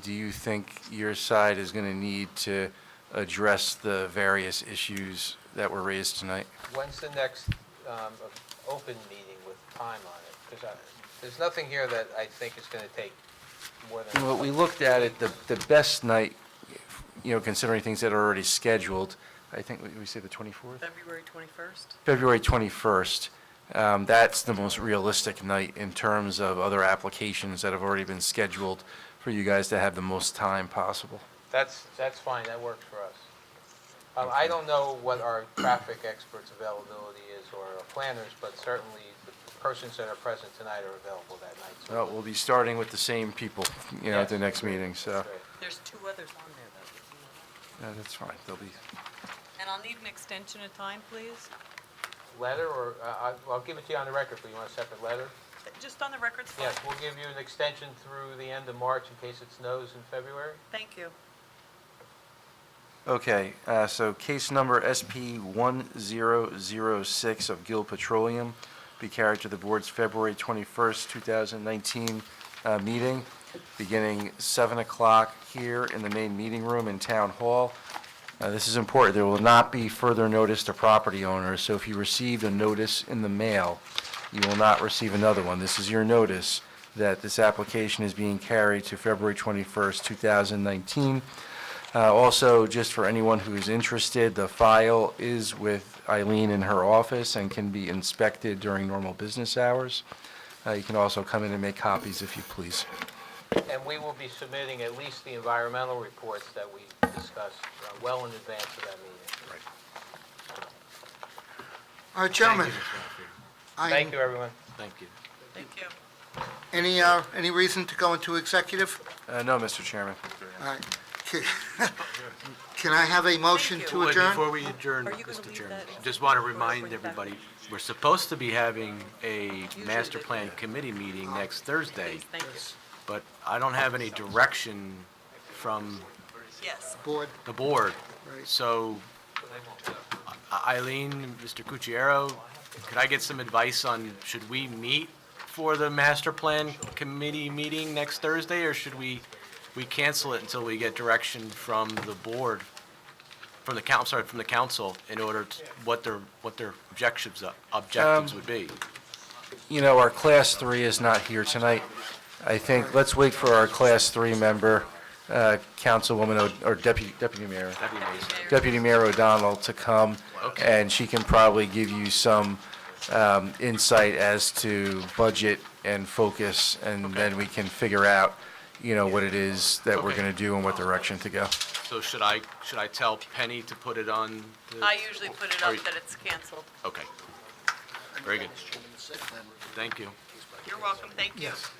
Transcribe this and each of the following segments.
do you think your side is going to need to address the various issues that were raised tonight? When's the next um, open meeting with time on it? Because there's nothing here that I think is going to take more than... Well, we looked at it, the, the best night, you know, considering things that are already scheduled, I think, we- we say the 24th? February 21st? February 21st. Um, That's the most realistic night in terms of other applications that have already been scheduled for you guys to have the most time possible. That's, that's fine, that works for us. Um, I don't know what our traffic expert's availability is or our planners, but certainly the persons that are present tonight are available that night. Well, so- We'll be starting with the same people, you know, at the Yes. next meeting, so Great. There's two others on there, though. if you want. yeah, that's fine. They'll be, And I'll need an extension of time, please, Letter, or, uh, I- I'll give it to you on the record, but you want a separate letter? just on the records. file. Yes, we'll give you an extension through the end of March in case it snows in February. Thank you. okay, uh, so case number SP 1006 of Guild Petroleum be carried to the board's February 21st, 2019 uh, meeting, beginning 7 o'clock here in the main meeting room in Town Hall. Uh, This is important. There will not be further notice to property owners, so if you received a notice in the mail, you will not receive another one. This is your notice that this application is being carried to February 21st, 2019. Uh, Also, just for anyone who is interested, the file is with Eileen in her office and can be inspected during normal business hours. Uh, You can also come in and make copies if you please. And we will be submitting at least the environmental reports that we discussed uh, well in advance of that meeting. All right, gentlemen. I- Thank you, everyone. Thank you. Any, uh, any reason to go into executive? Uh, No, Mr. Chairman. All right. Can I have a motion Thank you. to Wait, adjourn? Before we adjourn, Are you gonna Mr. leave Chairman, that? just want to Or remind bring it back? everybody, we're supposed to be having a master they do plan committee meeting next Thursday, Please, thank you. but I don't have any direction from Yes, Board, the board. Right. So I- Eileen, Mr. Cucchiaro, could I get some advice on, should we meet for the master plan committee meeting next Thursday, or should we, we cancel it until we get direction from the board, from the council, sorry, from the council, in order to, what their, what their objectives, objectives would be? you know, our Class 3 is not here tonight. I think, let's wait for our Class 3 member, uh, Councilwoman, O- or Deputy Deputy Mayor, That'd be amazing. Deputy Mayor O'Donnell to come, Okay. and she can probably give you some um, insight as to budget and focus, and then we can figure out, you know, what it is that we're Okay. going to do and what direction to go. So should I, should I tell Penny to put it on the? I usually put it Are up you- that it's canceled. Okay. Very good. Thank you. You're welcome, thank you. yes.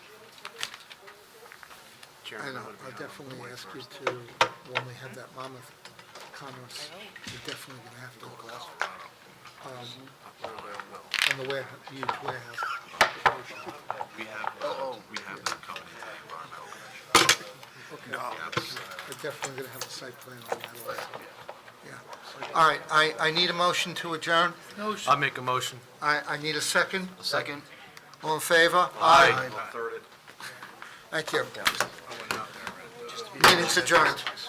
I know, I'll definitely ask you to, when we have that Monmouth Commerce, you're definitely going to have to go out. um, On the warehouse, huge warehouse. We have, uh, we have that coming into the environmental commission. Okay. We're definitely going to have a site plan on that also. Yeah. All right, I, I need a motion to adjourn. I'll make a motion. I, I need a second. Second. All in favor? Aye. Third, Thank you. Meeting's adjourned.